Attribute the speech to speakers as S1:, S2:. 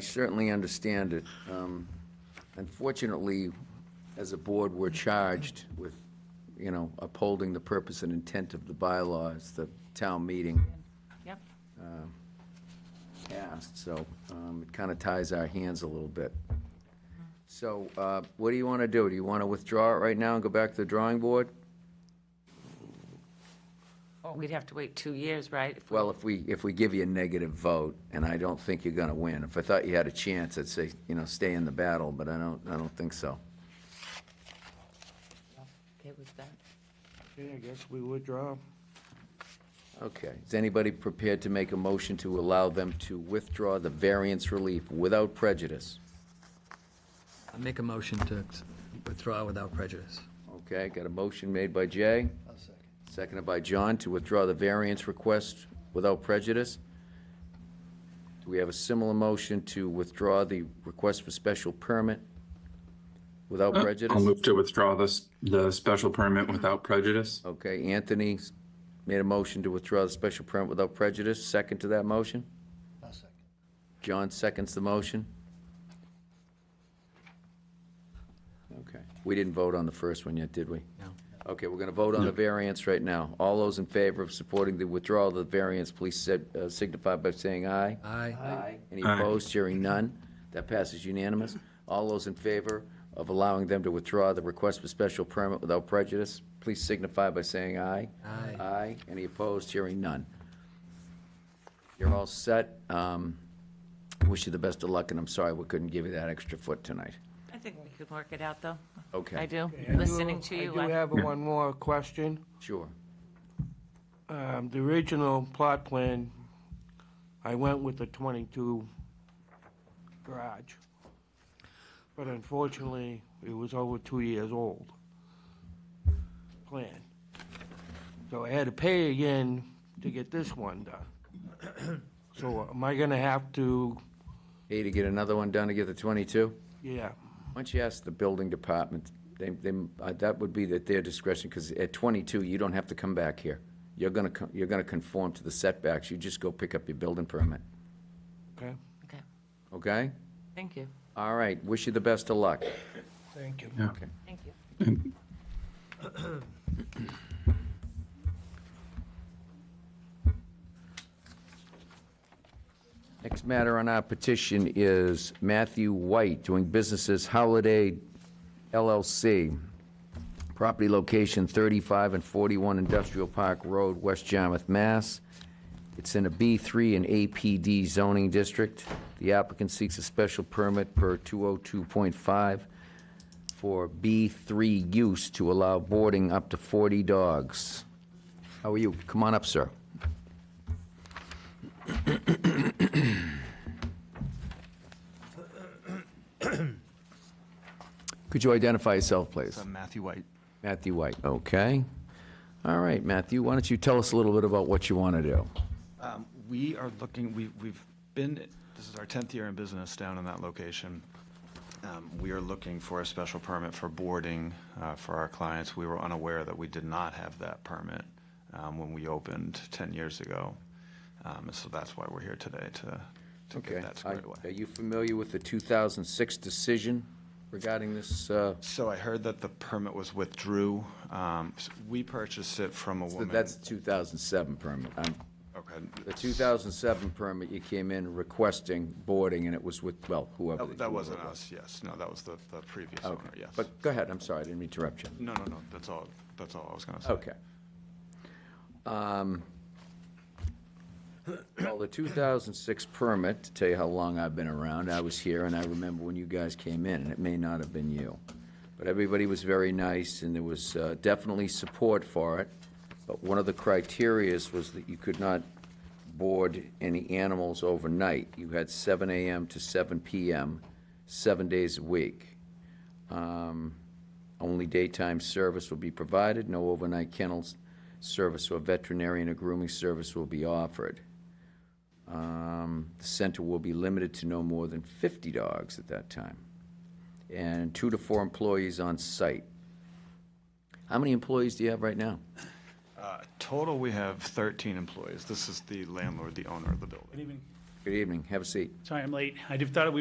S1: I certainly understand it. Um, Unfortunately, as a board, we're charged with, you know, upholding the purpose and intent of the bylaws, the town meeting
S2: Yep.
S1: passed, so um, it kind of ties our hands a little bit. So uh, what do you want to do? Do you want to withdraw it right now and go back to the drawing board?
S2: Well, Oh, we'd have to wait two years, right? If we-
S1: Well, if we, if we give you a negative vote, and I don't think you're going to win. If I thought you had a chance, I'd say, you know, stay in the battle, but I don't, I don't think so.
S2: Okay with that?
S3: Okay, I guess we withdraw.
S1: Okay, is anybody prepared to make a motion to allow them to withdraw the variance relief without prejudice?
S4: I make a motion to withdraw without prejudice.
S1: Okay, got a motion made by Jay, seconded by John to withdraw the variance request without prejudice. Do we have a similar motion to withdraw the request for special permit without prejudice?
S5: Uh, I'll move to withdraw this, the special permit without prejudice.
S1: Okay, Anthony s- made a motion to withdraw the special permit without prejudice. Second to that motion? John seconds the motion. Okay. We didn't vote on the first one yet, did we?
S4: No.
S1: Okay, we're going to vote on the variance right now. All those in favor of supporting the withdrawal of the variance, please si- uh, signify by saying aye.
S4: Aye.
S1: Aye. Any
S5: Aye.
S1: opposed? Hearing none. That passes unanimous. All those in favor of allowing them to withdraw the request for special permit without prejudice, please signify by saying aye.
S4: Aye.
S1: Aye. Any opposed? Hearing none. You're all set. Um, Wish you the best of luck, and I'm sorry we couldn't give you that extra foot tonight.
S2: I think we could work it out, though.
S1: Okay.
S2: I do,
S3: I do-
S2: listening to you.
S3: I
S2: I-
S3: do have one more question.
S1: Sure.
S3: Um, The original plot plan, I went with the 22 garage, but unfortunately, it was over two years old plan. So I had to pay again to get this one done. So am I going to have to,
S1: Hey, to get another one done to get the 22?
S3: yeah,
S1: Why don't you ask the building department? They, they, uh, that would be at their discretion, because at 22, you don't have to come back here. You're gonna, co- you're gonna conform to the setbacks. You just go pick up your building permit,
S3: okay?
S2: Okay,
S1: okay?
S2: thank you,
S1: All right, wish you the best of luck.
S3: Thank you.
S5: Yeah.
S2: thank you.
S1: Next matter on our petition is Matthew White, doing business as Holiday LLC. Property location 35 and 41 Industrial Park Road, West Yarmouth, Mass. It's in a B3 and APD zoning district. The applicant seeks a special permit per 202.5 for B3 use to allow boarding up to 40 dogs. How are you? Come on up, sir. Could you identify yourself, please?
S6: I'm Matthew White.
S1: Matthew White, okay. All right, Matthew, why don't you tell us a little bit about what you want to do?
S6: Um, We are looking, we, we've been, this is our 10th year in business down in that location. Um, We are looking for a special permit for boarding uh, for our clients. We were unaware that we did not have that permit um, when we opened 10 years ago. Um, and So that's why we're here today to, to get that
S1: Are
S6: squared
S1: are
S6: away.
S1: you familiar with the 2006 decision regarding this, uh,
S6: So I heard that the permit was withdrew. Um, s- We purchased it from a woman.
S1: that's the 2007 permit? Um,
S6: Okay.
S1: The 2007 permit, you came in requesting boarding, and it was with, well, whoever.
S6: Oh, That- That wasn't us, yes. No, that was the, the previous owner, yes.
S1: But go ahead, I'm sorry, I didn't mean to interrupt you.
S6: No, no, no, that's all, that's all I was gonna say.
S1: Okay. Um, Well, the 2006 permit, to tell you how long I've been around, I was here, and I remember when you guys came in, and it may not have been you. But everybody was very nice, and there was uh, definitely support for it. But one of the criterias was that you could not board any animals overnight. You had 7 AM to 7 PM, seven days a week. Only daytime service will be provided, no overnight kennels service or veterinarian or grooming service will be offered. Um, The center will be limited to no more than 50 dogs at that time, and two to four employees on site. How many employees do you have right now?
S6: Uh, Total, we have 13 employees. This is the landlord, the owner of the building.
S1: Good evening, have a seat.
S7: Sorry, I'm late. I just thought we